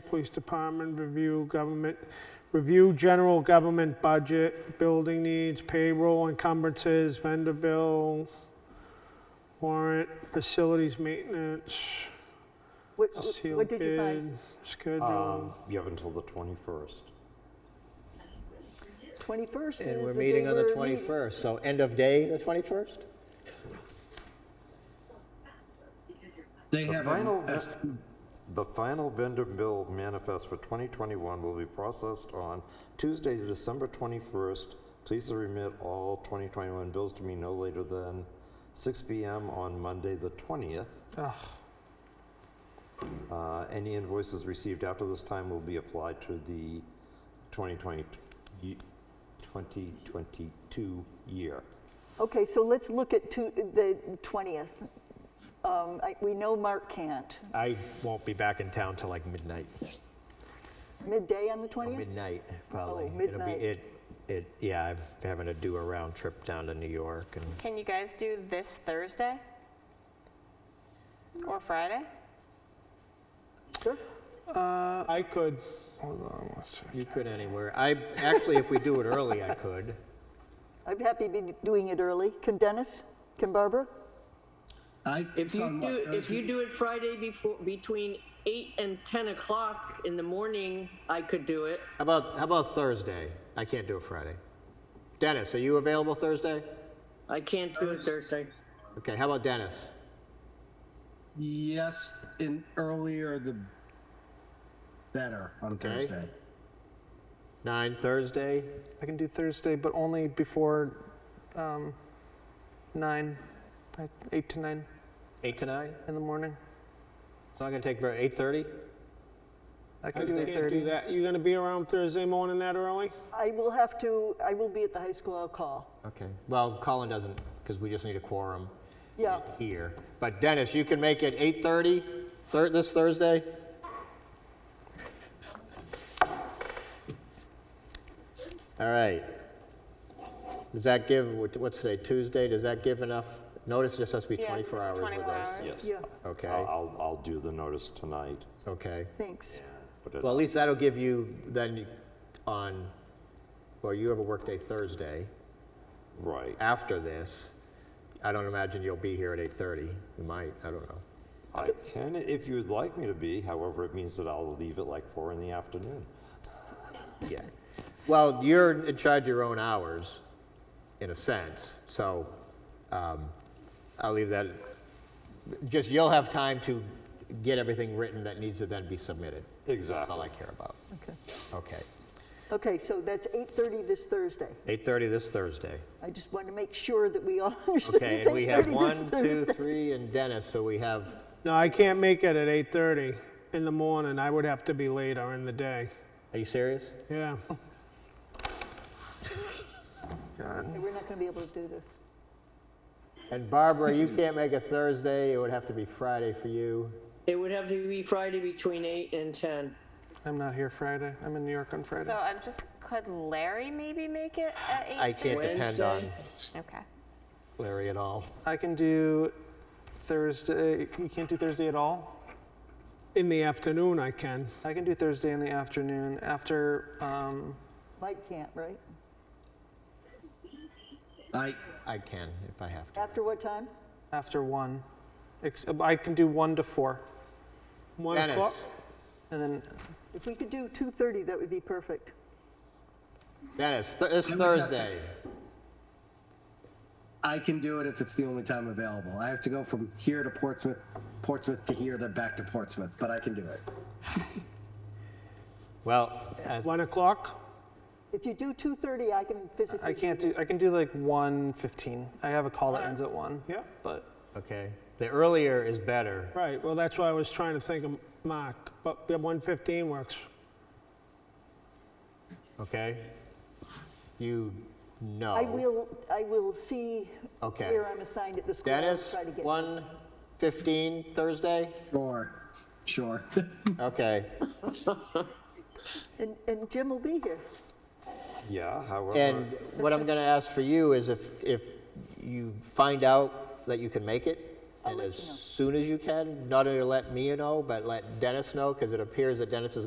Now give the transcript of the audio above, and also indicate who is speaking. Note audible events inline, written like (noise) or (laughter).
Speaker 1: Police Department review government, review general government budget, building needs, payroll encumbrances, vendor bill, warrant, facilities maintenance,
Speaker 2: What, what-
Speaker 1: sealed
Speaker 2: what did you find?
Speaker 1: bid, schedule.
Speaker 3: Um, You have until the 21st.
Speaker 2: 21st
Speaker 4: And
Speaker 2: is
Speaker 4: we're
Speaker 2: the
Speaker 4: meeting
Speaker 2: day
Speaker 4: on the
Speaker 2: we're
Speaker 4: 21st, so end of day, the 21st?
Speaker 5: They
Speaker 3: The
Speaker 5: have,
Speaker 3: final
Speaker 5: a-
Speaker 3: ves- The final vendor bill manifest for 2021 will be processed on Tuesday, December 21st. Please to remit all 2021 bills to me no later than 6 PM on Monday, the 20th.
Speaker 1: Ugh.
Speaker 3: Uh, Any invoices received after this time will be applied to the 2020 y- 2022 year.
Speaker 2: Okay, so let's look at two- the 20th. Um, I- We know Mark can't.
Speaker 4: I won't be back in town till like midnight,
Speaker 2: Midday on the
Speaker 4: or
Speaker 2: 20th?
Speaker 4: midnight, probably. It'll be-
Speaker 2: Oh, midnight.
Speaker 4: It, it, yeah, I'm having to do a round trip down to New York, and
Speaker 6: Can you guys do this Thursday? Or Friday?
Speaker 2: Sure.
Speaker 1: I could, hold on one second.
Speaker 4: you could anywhere. I, actually, if we do it early, I could.
Speaker 2: I'd be happy to be doing it early. Can Dennis, can Barbara?
Speaker 5: I,
Speaker 7: If
Speaker 5: it's
Speaker 7: you
Speaker 5: on what,
Speaker 7: do, if you
Speaker 5: Thursday?
Speaker 7: do it Friday before, between eight and 10 o'clock in the morning, I could do it.
Speaker 4: How about, how about Thursday? I can't do it Friday. Dennis, are you available Thursday?
Speaker 7: I can't do it Thursday.
Speaker 4: Okay, how about Dennis?
Speaker 5: Yes, in earlier the better on Thursday.
Speaker 4: Nine Thursday?
Speaker 8: I can do Thursday, but only before um, nine, like eight to nine
Speaker 4: Eight to nine?
Speaker 8: in the morning.
Speaker 4: It's not gonna take very, 8:30?
Speaker 8: I
Speaker 1: I
Speaker 8: can do
Speaker 1: can't do
Speaker 8: 8:30.
Speaker 1: that. You gonna be around Thursday morning that early?
Speaker 2: I will have to, I will be at the high school, I'll call.
Speaker 4: Okay, well, Colin doesn't, because we just need a quorum.
Speaker 2: Yeah,
Speaker 4: here. But Dennis, you can make it 8:30 thir- this Thursday? All right. Does that give, what- what's today, Tuesday? Does that give enough? Notice just has to be
Speaker 6: Yeah,
Speaker 4: 24
Speaker 6: it's
Speaker 4: hours with
Speaker 6: 24
Speaker 4: us.
Speaker 6: hours.
Speaker 3: Yes.
Speaker 2: yeah,
Speaker 4: Okay,
Speaker 3: I'll, I'll- I'll do the notice tonight.
Speaker 4: okay.
Speaker 2: thanks.
Speaker 3: put it
Speaker 4: Well, at
Speaker 3: out.
Speaker 4: least that'll give you then on, well, you have a workday Thursday
Speaker 3: Right.
Speaker 4: after this. I don't imagine you'll be here at 8:30. You might, I don't know.
Speaker 3: I can if you'd like me to be. However, it means that I'll leave at like four in the afternoon.
Speaker 4: Yeah. Well, you're in charge of your own hours, in a sense. So um, I'll leave that. Just you'll have time to get everything written that needs to then be submitted. That's all I
Speaker 3: Exactly.
Speaker 4: care about.
Speaker 2: Okay.
Speaker 4: Okay.
Speaker 2: Okay, so that's 8:30 this Thursday.
Speaker 4: 8:30 this Thursday.
Speaker 2: I just want to make sure that we all (laughs) understand
Speaker 4: Okay,
Speaker 2: it's 8:30
Speaker 4: and we have one,
Speaker 2: this
Speaker 4: two,
Speaker 2: Thursday.
Speaker 4: three, and Dennis. So we have.
Speaker 1: No, I can't make it at 8:30 in the morning. I would have to be later in the day.
Speaker 4: Are you serious?
Speaker 1: Yeah.
Speaker 2: Oh. Okay, We're not going to be able to do this.
Speaker 4: And Barbara, you can't make a Thursday. It would have to be Friday for you.
Speaker 7: It would have to be Friday between eight and 10.
Speaker 8: I'm not here Friday. I'm in New York on Friday.
Speaker 6: So I'm just, could Larry maybe make it at eight?
Speaker 4: I can't depend on
Speaker 7: Wednesday?
Speaker 6: Okay.
Speaker 4: Larry at all.
Speaker 8: I can do Thursday. You can't do Thursday at all?
Speaker 1: In the afternoon, I can.
Speaker 8: I can do Thursday in the afternoon after, um,
Speaker 2: Mike can't, right?
Speaker 5: I,
Speaker 4: I can if I have to.
Speaker 2: After what time?
Speaker 8: after one. Ex- I can do one to four.
Speaker 1: One o'clock.
Speaker 4: Dennis,
Speaker 8: And then
Speaker 2: If we could do 2:30, that would be perfect.
Speaker 4: Dennis, th- this
Speaker 5: I would have to-
Speaker 4: Thursday.
Speaker 5: I can do it if it's the only time available. I have to go from here to Portsmouth, Portsmouth to here, then back to Portsmouth, but I can do it.
Speaker 4: Well, uh,
Speaker 1: One o'clock?
Speaker 2: If you do 2:30, I can physically.
Speaker 8: I can't do, I can do like 1:15. I have a call that ends at one.
Speaker 1: Yeah.
Speaker 8: But
Speaker 4: okay. The earlier is better.
Speaker 1: Right, well, that's why I was trying to think of Mark, but the 115 works.
Speaker 4: Okay. You know.
Speaker 2: I will, I will see
Speaker 4: Okay.
Speaker 2: where I'm assigned at the school. I'll
Speaker 4: Dennis,
Speaker 2: try to get-
Speaker 4: one fifteen
Speaker 2: (laughs)
Speaker 4: Thursday.
Speaker 5: Sure, sure. (laughs)
Speaker 4: Okay.
Speaker 2: And, and Jim will be here.
Speaker 3: Yeah, however.
Speaker 4: And what I'm going to ask for you is if if you find out that you can make it,
Speaker 2: I'll
Speaker 4: and
Speaker 2: let
Speaker 4: as
Speaker 2: you know.
Speaker 4: soon as you can, not only let me know, but let Dennis know, because it appears that Dennis is